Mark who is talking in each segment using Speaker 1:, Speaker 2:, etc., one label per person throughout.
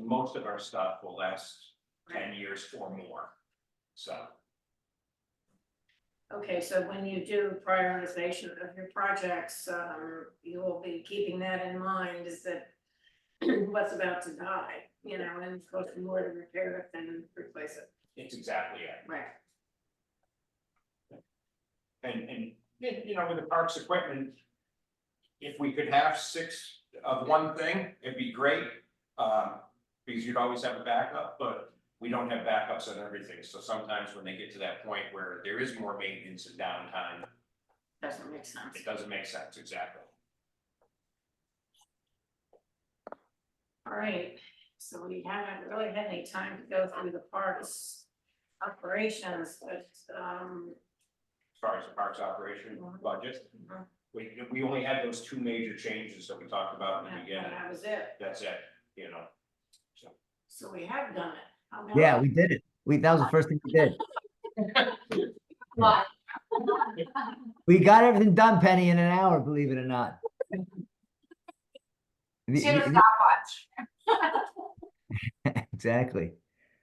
Speaker 1: most of our stuff will last ten years or more. So,
Speaker 2: Okay, so when you do prioritization of your projects, um, you will be keeping that in mind is that what's about to die, you know, and it's going to more to repair it than replace it,
Speaker 1: it's exactly it,
Speaker 2: right?
Speaker 1: and, and, y- you know, with the parks equipment. If we could have six of one thing, it'd be great, um, because you'd always have a backup, but. We don't have backups on everything, so sometimes when they get to that point where there is more maintenance and downtime,
Speaker 2: Doesn't make sense.
Speaker 1: it doesn't make sense, exactly.
Speaker 2: All right, so we haven't really had any time to go through the parks operations, but, um,
Speaker 1: as far as the parks operation
Speaker 2: Mhm.
Speaker 1: budget.
Speaker 2: Mhm.
Speaker 1: We, we only had those two major changes that we talked about in the
Speaker 2: that
Speaker 1: beginning,
Speaker 2: that was it.
Speaker 1: that's it, you know,
Speaker 2: So we have done it. How about-
Speaker 3: Yeah, we did it. We, that was the first thing we did.
Speaker 2: Well,
Speaker 3: We got everything done, Penny, in an hour, believe it or not. The-
Speaker 2: She had a
Speaker 3: the-
Speaker 2: stopwatch.
Speaker 3: Exactly.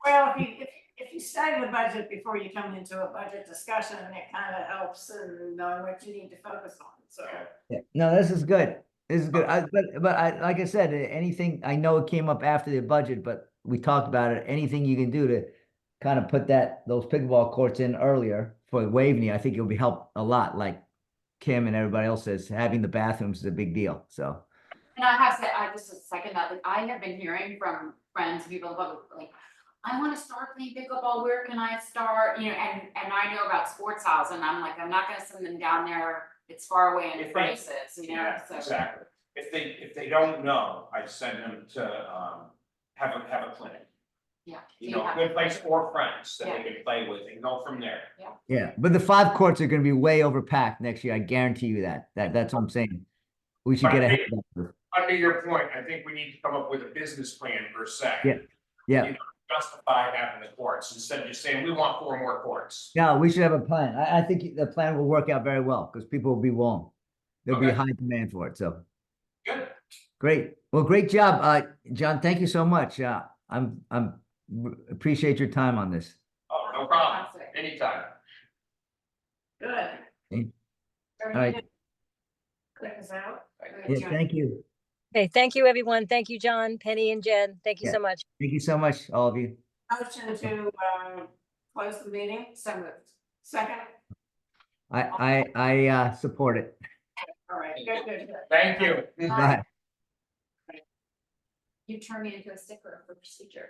Speaker 2: Well, if you, if, if you study the budget before you come into a budget discussion, it kind of helps in knowing what you need to focus on, so.
Speaker 3: Yeah, No, this is good. This is good. I, but, but I, like I said, eh, anything, I know it came up after the budget, but we talked about it. Anything you can do to kind of put that, those pickleball courts in earlier for Waveney, I think it'll be help a lot, like Kim and everybody else says, having the bathrooms is a big deal, so.
Speaker 4: And I have said, I just second that, like, I have been hearing from friends, people, about, like, I wanna start playing pickleball, where can I start, you know, and, and I know about sports house, and I'm like, I'm not gonna send them down there, it's far away
Speaker 1: If
Speaker 4: and
Speaker 1: they-
Speaker 4: prices, you know,
Speaker 1: Yeah,
Speaker 4: so.
Speaker 1: exactly. If they, if they don't know, I send them to, um, have a, have a clinic,
Speaker 4: Yeah.
Speaker 1: you
Speaker 4: do
Speaker 1: know,
Speaker 4: have-
Speaker 1: good place or friends that they can play with and go from there.
Speaker 3: Yeah, but the five courts are gonna be way overpacked next year. I guarantee you that. That, that's what I'm saying. We should get
Speaker 1: Right.
Speaker 3: ahead of that.
Speaker 1: Under your point, I think we need to come up with a business plan per se.
Speaker 3: Yeah, yeah.
Speaker 1: You know, Justify having the courts instead of just saying, we want four more courts.
Speaker 3: No, we should have a plan. I, I think the plan will work out very well because people will be warm. There'll be
Speaker 1: Okay.
Speaker 3: high demand for it. So
Speaker 1: Good,
Speaker 3: great. Well, great job, uh, John. Thank you so much. Uh, I'm I'm r- appreciate your time on this.
Speaker 1: oh, no problem,
Speaker 4: Fantastic.
Speaker 1: anytime.
Speaker 2: Good.
Speaker 3: Mm.
Speaker 2: Very
Speaker 3: All right.
Speaker 2: good. Click us out.
Speaker 4: Good
Speaker 3: Yeah,
Speaker 4: job.
Speaker 3: thank you.
Speaker 5: Okay, thank you, everyone. Thank you, John, Penny, and Jen. Thank you
Speaker 3: Yeah.
Speaker 5: so much.
Speaker 3: Thank you so much, all of you.
Speaker 2: Motion to, um, close the meeting, so moved. Second,
Speaker 3: I I I uh, support it.
Speaker 2: all right, good, good, good.
Speaker 1: Thank you.
Speaker 3: Bye.
Speaker 4: You turn me into a sticker for procedure.